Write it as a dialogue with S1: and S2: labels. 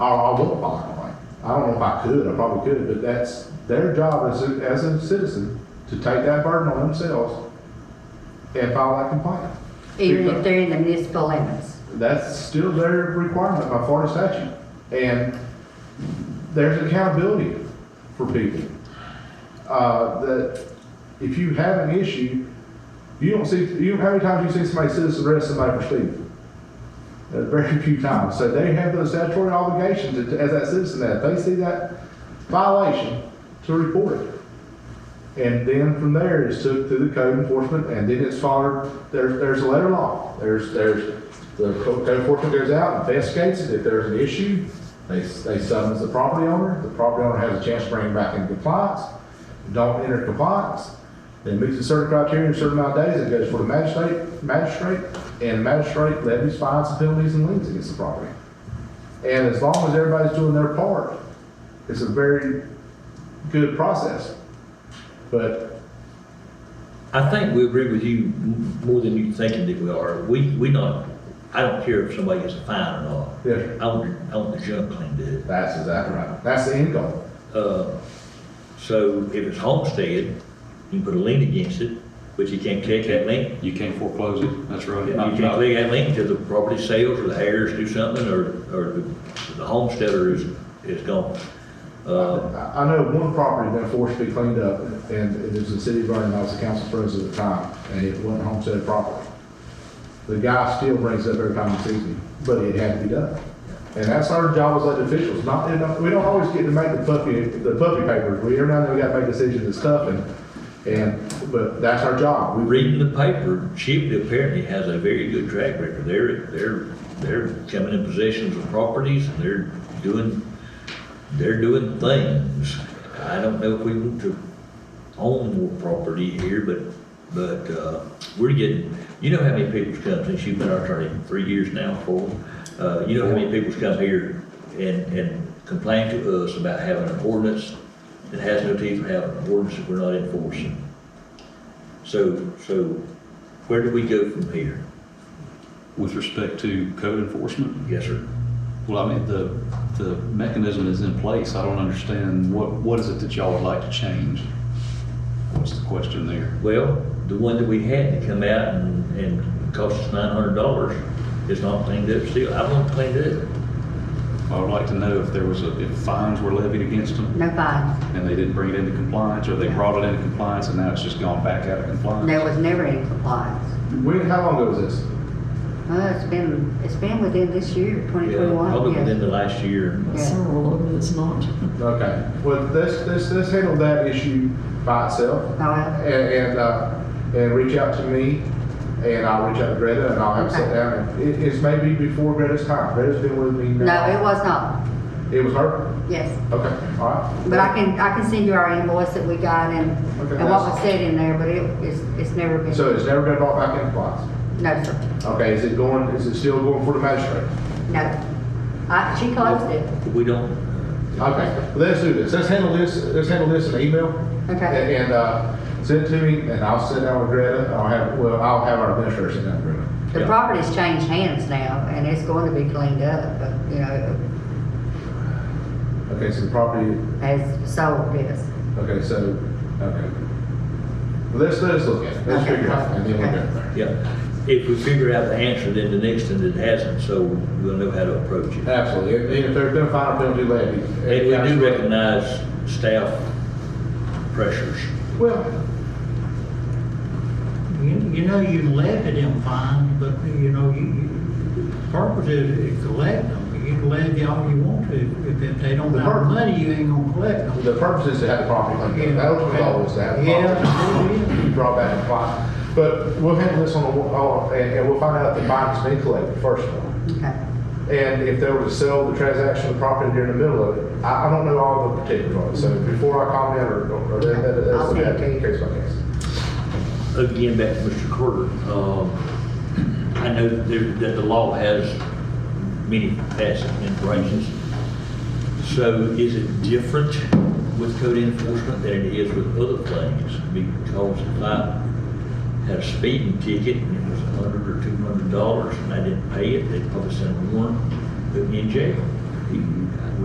S1: I, I will fire away. I don't know if I could, I probably could, but that's their job as a, as a citizen to take that burden on themselves and file that complaint.
S2: even if they're in the municipal limits.
S1: That's still their requirement by Florida statute. And there's accountability for people. Uh, that if you have an issue, you don't see, you, how many times you see somebody citizen arrest somebody for stealing? Uh, Very few times. So they have those statutory obligations to- as that citizen that if they see that violation to report it. And then from there, it's took to the code enforcement, and then it's followed, there's, there's a letter law. There's, there's, the co- code enforcement goes out, investigates it, if there's an issue, they, they summons the property owner, the property owner has a chance to bring it back into compliance. Don't enter compliance, then meets a certain criteria, in a certain amount of days, it goes for the magistrate, magistrate, and magistrate levies fines, penalties, and liens against the property. And as long as everybody's doing their part, it's a very good process. But
S3: I think we agree with you m- more than you thinking that we are. We, we not, I don't care if somebody gets a fine or not.
S1: Yes.
S3: I want, I want the junk cleaned up.
S1: that's exactly right. That's the end goal.
S3: Uh, so if it's homestead, you can put a lien against it, but you can't take that lien.
S4: You can't foreclose it, that's right.
S3: You can't take that lien till the property sales or the heirs do something or, or the the homesteader is, is gone. Uh,
S1: I I know one property that forced to be cleaned up, and it was the city of Vernon, I was the council president at the time, and it wasn't homestead property. The guy still brings it up every time he sees me, but it had to be done. And that's our job as elected officials, not, and we don't always get to make the puppy, the puppy papers, we, every now and then we gotta make decisions and stuff, and, and, but that's our job. We-
S3: Reading the paper, Chipley apparently has a very good track record. They're, they're, they're coming in possessions of properties and they're doing, they're doing things. I don't know if we want to own more property here, but, but, uh, we're getting, you know how many people's come since you've been our attorney, three years now, four? Uh, you know how many people's come here and, and complain to us about having an ordinance that has no teeth, or having an ordinance that we're not enforcing? So, so where do we go from here?
S4: With respect to code enforcement,
S3: Yes, sir.
S4: well, I mean, the, the mechanism is in place. I don't understand, what, what is it that y'all would like to change? What's the question there?
S3: Well, the one that we had to come out and, and cost us nine hundred dollars is not cleaned up still. I want it cleaned up.
S4: I would like to know if there was a, if fines were levied against them
S2: No fines.
S4: and they didn't bring it into compliance, or they brought it into compliance and now it's just gone back out of
S2: There
S4: compliance.
S2: was never any compliance.
S1: When, how long ago was this?
S2: Well, it's been, it's been within this year, twenty
S3: Yeah, Probably
S2: twenty-one,
S3: within
S2: yes.
S3: the last year.
S2: Yeah.
S5: Several of them is not.
S1: Okay, well, let's, let's, let's handle that issue by itself.
S2: Oh, well.
S1: and, and, uh, and reach out to me, and I'll reach out to Greta, and I'll have a sit down. And It, it's maybe before Greta's time, Greta's been with me
S2: No, it
S1: now.
S2: was not,
S1: it. was her?
S2: yes.
S1: Okay, all right.
S2: But I can, I can send you our invoice that we got and,
S1: Okay,
S2: and what
S1: that's-
S2: was said in there, but it, it's, it's never been,
S1: So it's never been brought back into compliance?
S2: no, sir,
S1: Okay, is it going, is it still going for the magistrate?
S2: no. Oh, I, she closed it,
S3: We don't,
S1: Okay, let's do this, let's handle this, let's handle this in email.
S2: Okay.
S1: And, uh, send it to me, and I'll sit down with Greta, I'll have, well, I'll have our administrator sit down with Greta.
S2: the
S3: Yeah.
S2: property's changed hands now and it's going to be cleaned up, but, you know,
S1: Okay, so the property
S2: has sold this.
S1: Okay, so, okay. Well, Let's, let's look at it, let's
S2: Okay.
S1: figure it out, and then we'll go from there.
S3: yeah. If we figure out the answer, then the next one that hasn't, so we'll know how to approach it.
S1: Absolutely, and if there's been a final penalty levied.
S3: And we do recognize staff pressures.
S1: Well,
S6: You, you know, you levy them fine, but you know, you, you, the purpose is, is to levy them. You can levy all you want to. If, if they don't
S1: The
S6: have
S1: purpose-
S6: money, you ain't gonna collect them.
S1: the purpose is to have the property cleaned up, that was the goal, was to have the
S6: Yeah,
S1: property
S6: it is.
S1: cleaned up, brought back in line. But we'll handle this on, the on- and, and we'll find out if the bond's been collected first of all.
S2: Okay.
S1: And if they were to sell the transaction of the property during the middle of it, I, I don't know all the particulars on it, so before I comment or, or, or that, that,
S2: I'll send it
S1: that's,
S2: to you.
S1: case by case.
S3: again, back to Mr. Carter, um, I know that there- that the law has many facets and branches. So is it different with code enforcement than it is with other things? Because if I had a speeding ticket and it was a hundred
S4: Hmm.
S3: or two hundred dollars and I didn't pay it, they'd probably send a warrant, put me in jail. You-